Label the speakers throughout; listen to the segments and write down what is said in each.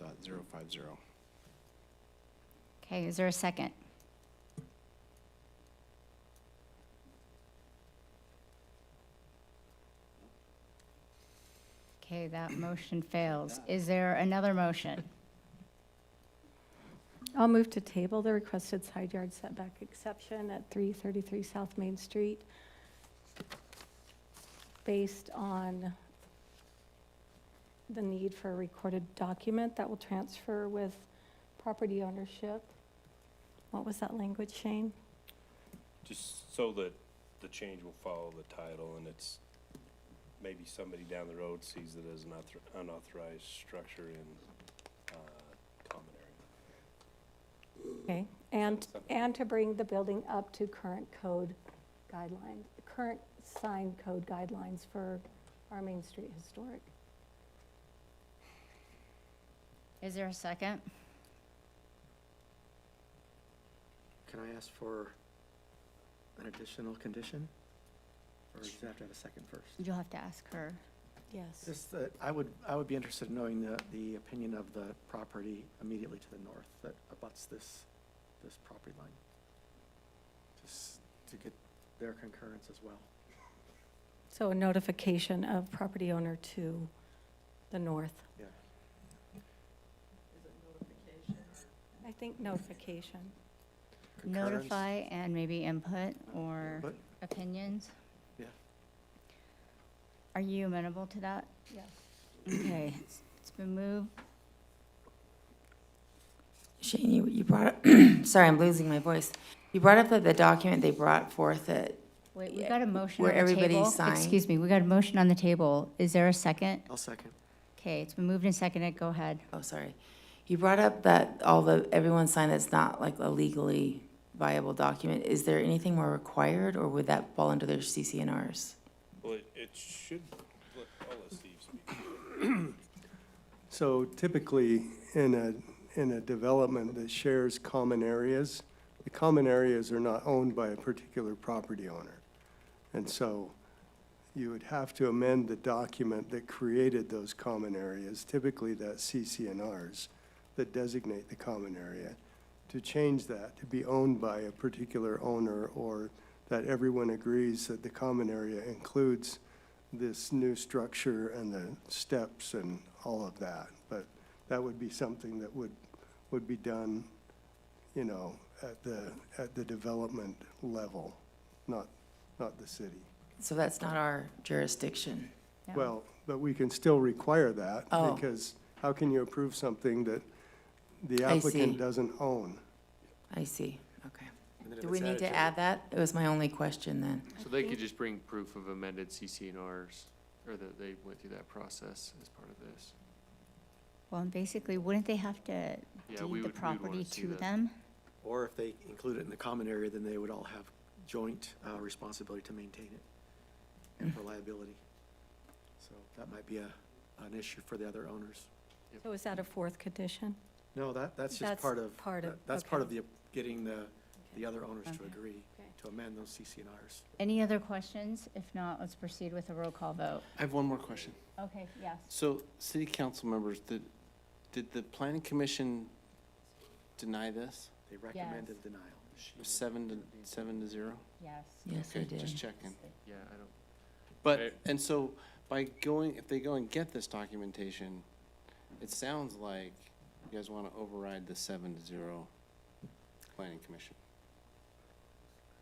Speaker 1: 3.07.050.
Speaker 2: Okay, is there a second? Okay, that motion fails. Is there another motion?
Speaker 3: I'll move to table the requested side yard setback exception at 333 South Main Street based on the need for a recorded document that will transfer with property ownership. What was that language, Shane?
Speaker 4: Just so that the change will follow the title and it's, maybe somebody down the road sees it as an author- unauthorized structure in, uh, common area.
Speaker 3: Okay, and, and to bring the building up to current code guidelines, current sign code guidelines for our Main Street Historic.
Speaker 2: Is there a second?
Speaker 5: Can I ask for an additional condition? Or does it have to have a second first?
Speaker 2: You'll have to ask her.
Speaker 3: Yes.
Speaker 5: Just that, I would, I would be interested in knowing the, the opinion of the property immediately to the north that abuts this, this property line. Just to get their concurrence as well.
Speaker 3: So a notification of property owner to the north.
Speaker 5: Yeah.
Speaker 3: I think notification.
Speaker 5: Concurrence,
Speaker 2: Notify and maybe input or
Speaker 5: But,
Speaker 2: opinions?
Speaker 5: Yeah.
Speaker 2: Are you amenable to that?
Speaker 3: Yes.
Speaker 2: Okay, it's- it's been moved.
Speaker 6: Shane, you, you brought, up sorry, I'm losing my voice. You brought up that the document they brought forth that,
Speaker 2: Wait, we got a motion on
Speaker 6: Where
Speaker 2: the table.
Speaker 6: everybody signed.
Speaker 2: Excuse me, we got a motion on the table. Is there a second?
Speaker 5: I'll second.
Speaker 2: Okay, it's been moved and seconded. Go ahead.
Speaker 6: oh, sorry. You brought up that all the, everyone signed that's not like a legally viable document. Is there anything more required or would that fall under their CCNRs?
Speaker 4: Well, it, it should, let- I'll let Steve speak.
Speaker 7: So typically, in a, in a development that shares common areas, the common areas are not owned by a particular property owner. And so you would have to amend the document that created those common areas, typically that CCNRs that designate the common area, to change that to be owned by a particular owner or that everyone agrees that the common area includes this new structure and the steps and all of that. But that would be something that would, would be done, you know, at the, at the development level, not, not the city.
Speaker 6: So that's not our jurisdiction.
Speaker 2: Yeah.
Speaker 7: Well, but we can still require that
Speaker 6: Oh.
Speaker 7: because how can you approve something that the
Speaker 6: I
Speaker 7: applicant
Speaker 6: see.
Speaker 7: doesn't own?
Speaker 6: I see, okay.
Speaker 5: And then if
Speaker 6: Do
Speaker 5: it's
Speaker 6: we need
Speaker 5: added
Speaker 6: to
Speaker 5: the-
Speaker 6: add that? It was my only question then.
Speaker 8: So they could just bring proof of amended CCNRs, or that they went through that process as part of this.
Speaker 2: Well, and basically, wouldn't they have to
Speaker 8: Yeah, we
Speaker 2: deed the
Speaker 8: would, we would wanna
Speaker 2: property
Speaker 8: see
Speaker 2: to
Speaker 8: that.
Speaker 2: them?
Speaker 5: Or if they include it in the common area, then they would all have joint uh, responsibility to maintain it and for liability. So that might be a, an issue for the other owners.
Speaker 3: So is that a fourth condition?
Speaker 5: No, that,
Speaker 3: That's
Speaker 5: that's just part of,
Speaker 3: part of-
Speaker 5: that- that's part of
Speaker 3: okay.
Speaker 5: the, getting the, the other owners to
Speaker 2: Okay.
Speaker 5: agree
Speaker 3: Okay.
Speaker 5: to amend those CCNRs.
Speaker 2: Any other questions? If not, let's proceed with a roll call vote.
Speaker 1: I have one more question.
Speaker 2: Okay, yes.
Speaker 1: So, city council members, did, did the planning commission deny this?
Speaker 5: They recommended denial.
Speaker 1: Seven to, seven to zero?
Speaker 2: Yes.
Speaker 6: Yes, I
Speaker 1: Okay,
Speaker 6: did.
Speaker 1: just checking.
Speaker 8: Yeah, I don't,
Speaker 1: But,
Speaker 8: Right.
Speaker 1: and so, by going, if they go and get this documentation, it sounds like you guys want to override the seven to zero planning commission.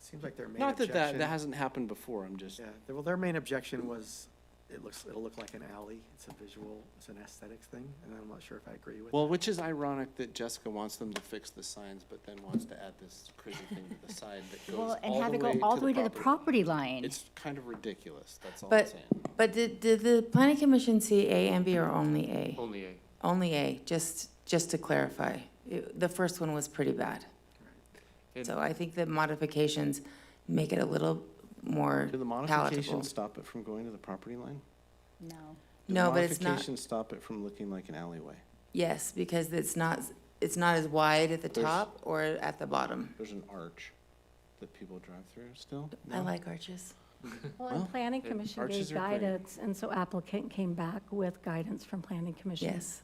Speaker 5: Seems like their main
Speaker 1: Not that that,
Speaker 5: objection,
Speaker 1: that hasn't happened before, I'm just,
Speaker 5: yeah, their- well, their main objection was, it looks, it'll look like an alley. It's a visual, it's an aesthetics thing, and I'm not sure if I agree with that.
Speaker 1: well, which is ironic that Jessica wants them to fix the signs, but then wants to add this crazy thing to the side that goes
Speaker 2: Well, and
Speaker 1: all
Speaker 2: have
Speaker 1: the
Speaker 2: it go
Speaker 1: way
Speaker 2: all the way to the
Speaker 1: property.
Speaker 2: property line.
Speaker 1: It's kind of ridiculous, that's all I'm
Speaker 6: But,
Speaker 1: saying.
Speaker 6: but did, did the planning commission see A and B or only A?
Speaker 8: only A.
Speaker 6: Only A, just, just to clarify. It- The first one was pretty bad.
Speaker 8: And-
Speaker 6: So I think the modifications make it a little more
Speaker 1: Do the
Speaker 6: palatable.
Speaker 1: modifications stop it from going to the property line?
Speaker 2: No.
Speaker 1: Do the
Speaker 6: No, but it's not,
Speaker 1: Modifications stop it from looking like an alleyway.
Speaker 6: yes, because it's not, it's not as wide at the
Speaker 1: There's-
Speaker 6: top or at the bottom.
Speaker 1: There's an arch that people drive through still?
Speaker 6: I
Speaker 1: No?
Speaker 6: like arches.
Speaker 3: Well, and
Speaker 1: Well,
Speaker 3: planning commission gave
Speaker 1: arches are great.
Speaker 3: guidance, and so applicant came back with guidance from planning commission.
Speaker 6: Yes.